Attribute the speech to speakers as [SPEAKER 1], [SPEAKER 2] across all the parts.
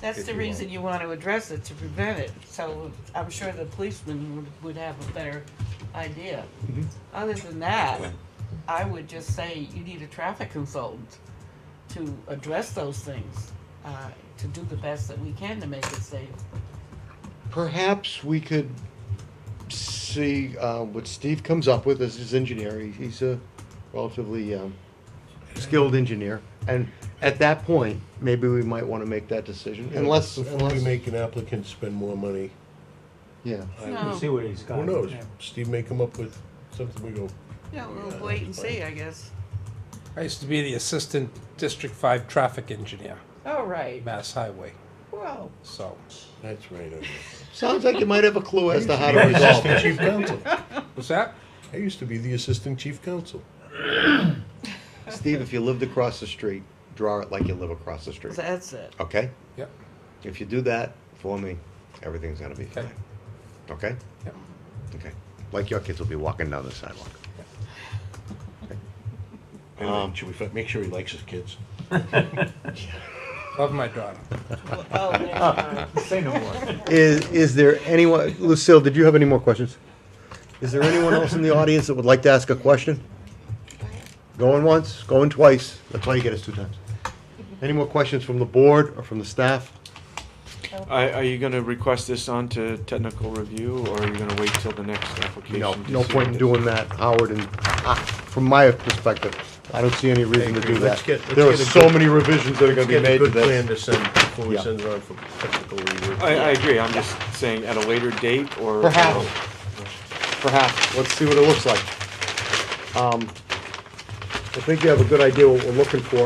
[SPEAKER 1] That's
[SPEAKER 2] if
[SPEAKER 1] the
[SPEAKER 2] you want.
[SPEAKER 1] reason you want to address it, to prevent it, so I'm sure the policeman would, would have a better idea.
[SPEAKER 2] Mhm.
[SPEAKER 1] Other than that, I would just say you need a traffic consultant to address those things, uh, to do the best that we can to make it safe.
[SPEAKER 3] Perhaps we could see uh, what Steve comes up with as his engineer. He- He's a relatively um, skilled engineer, and at that point, maybe we might want to make that decision, unless,
[SPEAKER 4] Unless we
[SPEAKER 3] unless,
[SPEAKER 4] make an applicant spend more money.
[SPEAKER 3] yeah.
[SPEAKER 4] I-
[SPEAKER 1] No.
[SPEAKER 2] We'll see what he's got.
[SPEAKER 4] Who knows? Steve may come up with something we go,
[SPEAKER 1] Yeah,
[SPEAKER 4] Yeah,
[SPEAKER 1] we'll wait and
[SPEAKER 4] that's fine.
[SPEAKER 1] see, I guess.
[SPEAKER 5] I used to be the assistant District Five traffic engineer,
[SPEAKER 1] All right,
[SPEAKER 5] Mass Highway,
[SPEAKER 1] well,
[SPEAKER 5] so.
[SPEAKER 4] that's right. I
[SPEAKER 3] Sounds like you might have a clue as to how to
[SPEAKER 4] know.
[SPEAKER 3] resolve
[SPEAKER 4] Assistant
[SPEAKER 3] it.
[SPEAKER 4] chief counsel.
[SPEAKER 5] What's that?
[SPEAKER 4] I used to be the assistant chief counsel.
[SPEAKER 3] Steve, if you lived across the street, draw it like you live across the street.
[SPEAKER 1] that's it.
[SPEAKER 3] Okay?
[SPEAKER 5] Yep,
[SPEAKER 3] If you do that for me, everything's gonna be
[SPEAKER 5] Okay.
[SPEAKER 3] fine. Okay?
[SPEAKER 5] yep.
[SPEAKER 3] Okay. Like your kids will be walking down the sidewalk. Um,
[SPEAKER 4] Anyway, should we fi- make sure he likes his kids?
[SPEAKER 5] Love my daughter.
[SPEAKER 1] Oh, there you are.
[SPEAKER 2] Say no more.
[SPEAKER 3] Is, is there anyone, Lucille, did you have any more questions? Is there anyone else in the audience that would like to ask a question? Going once, going twice. That's why you get us two times. Any more questions from the board or from the staff?
[SPEAKER 6] Are, are you gonna request this onto technical review, or are you gonna wait till the next application?
[SPEAKER 3] No,
[SPEAKER 6] to
[SPEAKER 3] no
[SPEAKER 6] see
[SPEAKER 3] point
[SPEAKER 6] what
[SPEAKER 3] in
[SPEAKER 6] it-
[SPEAKER 3] doing that, Howard, and uh, from my perspective, I don't see any reason to
[SPEAKER 4] agree.
[SPEAKER 3] do
[SPEAKER 4] Let's
[SPEAKER 3] that.
[SPEAKER 4] get- let's
[SPEAKER 3] There are
[SPEAKER 4] get a
[SPEAKER 3] so
[SPEAKER 4] good-
[SPEAKER 3] many revisions that are gonna
[SPEAKER 4] Let's
[SPEAKER 3] be
[SPEAKER 4] get
[SPEAKER 3] made to
[SPEAKER 4] a good plan
[SPEAKER 3] this.
[SPEAKER 4] to send before we
[SPEAKER 3] Yeah.
[SPEAKER 4] send it on for technical review.
[SPEAKER 6] I, I agree, I'm just saying at a later date, or.
[SPEAKER 3] Perhaps. Perhaps, let's see what it looks like. Um, I think you have a good idea what we're looking for,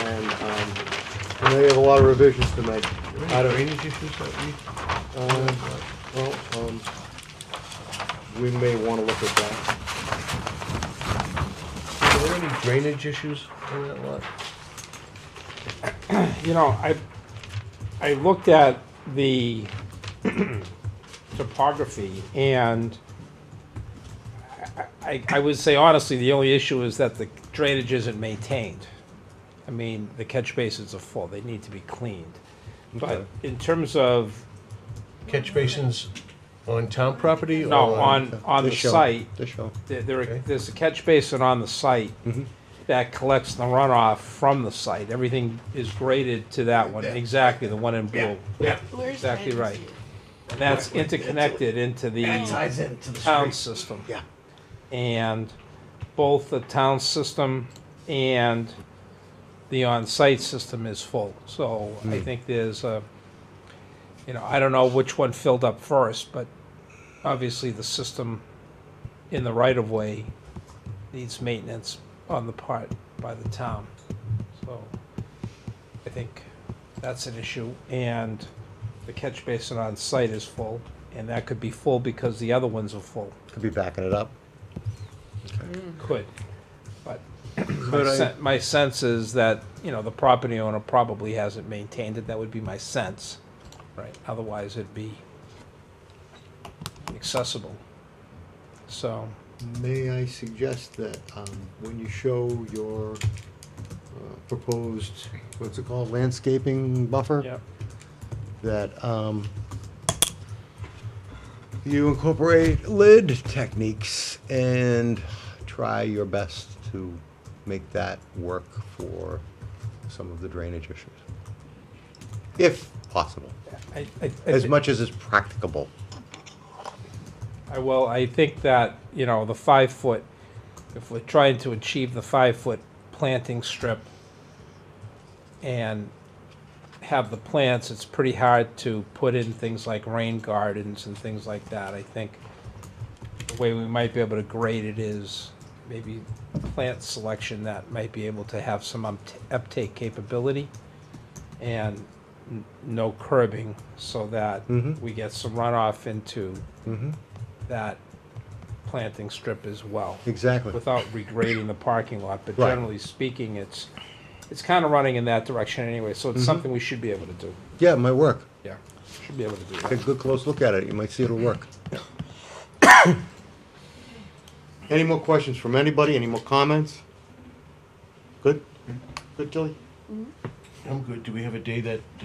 [SPEAKER 3] and, um, I know you have a lot of revisions to make. I don't,
[SPEAKER 4] Drainage issues that we-
[SPEAKER 3] um, well, um, we may wanna look at that.
[SPEAKER 4] Are there any drainage issues on that lot?
[SPEAKER 5] You know, I, I looked at the topography and I, I would say honestly, the only issue is that the drainage isn't maintained. I mean, the catch basins are full, they need to be cleaned. But
[SPEAKER 3] Okay.
[SPEAKER 5] in terms of,
[SPEAKER 4] Catch basins on town property or?
[SPEAKER 5] no, on, on the
[SPEAKER 3] This show,
[SPEAKER 5] site,
[SPEAKER 3] This show.
[SPEAKER 5] There, there,
[SPEAKER 4] Okay. Mm-hmm.
[SPEAKER 5] there's a catch basin on the site that collects the runoff from the site. Everything is graded to that one, exactly, the one in blue.
[SPEAKER 4] Yeah.
[SPEAKER 1] Where's
[SPEAKER 5] Exactly
[SPEAKER 1] Nancy?
[SPEAKER 5] right. And that's interconnected into the
[SPEAKER 7] ties into the
[SPEAKER 5] town
[SPEAKER 7] street.
[SPEAKER 5] system.
[SPEAKER 7] Yeah.
[SPEAKER 5] And both the town system and the on-site system is full. So
[SPEAKER 7] Hmm.
[SPEAKER 5] I think there's a, you know, I don't know which one filled up first, but obviously the system in the right-of-way needs maintenance on the part by the town. So I think that's an issue. And the catch basin on site is full, and that could be full because the other ones are full.
[SPEAKER 3] Could be backing it up.
[SPEAKER 5] Could. But my sen- my sense is that, you know, the property owner probably hasn't maintained it. That would be my sense. Right. Otherwise, it'd be accessible. So,
[SPEAKER 3] May I suggest that um, when you show your uh, proposed, what's it called, landscaping buffer?
[SPEAKER 5] yeah.
[SPEAKER 3] That um, you incorporate lid techniques and try your best to make that work for some of the drainage issues. If possible,
[SPEAKER 5] I- I- I
[SPEAKER 3] as
[SPEAKER 5] thi-
[SPEAKER 3] much as is practicable.
[SPEAKER 5] I will, I think that, you know, the five foot, if we're trying to achieve the five foot planting strip and have the plants, it's pretty hard to put in things like rain gardens and things like that. I think the way we might be able to grade it is maybe plant selection that might be able to have some upt- uptake capability and n- no curbing so that
[SPEAKER 3] Mhm.
[SPEAKER 5] we get some runoff into
[SPEAKER 3] Mm-hmm.
[SPEAKER 5] that planting strip as well,
[SPEAKER 3] Exactly.
[SPEAKER 5] without regrading the parking lot, but
[SPEAKER 3] Right.
[SPEAKER 5] generally speaking, it's, it's kind of running in that direction anyway, so it's something we should be able to do,
[SPEAKER 3] Yeah, it might work.
[SPEAKER 5] yeah, should be able to do
[SPEAKER 3] Take
[SPEAKER 5] that.
[SPEAKER 3] a good close look at it, you might see it'll work. Any more questions from anybody, any more comments? Good? Good, Tilly?
[SPEAKER 4] I'm good. Do we have a day that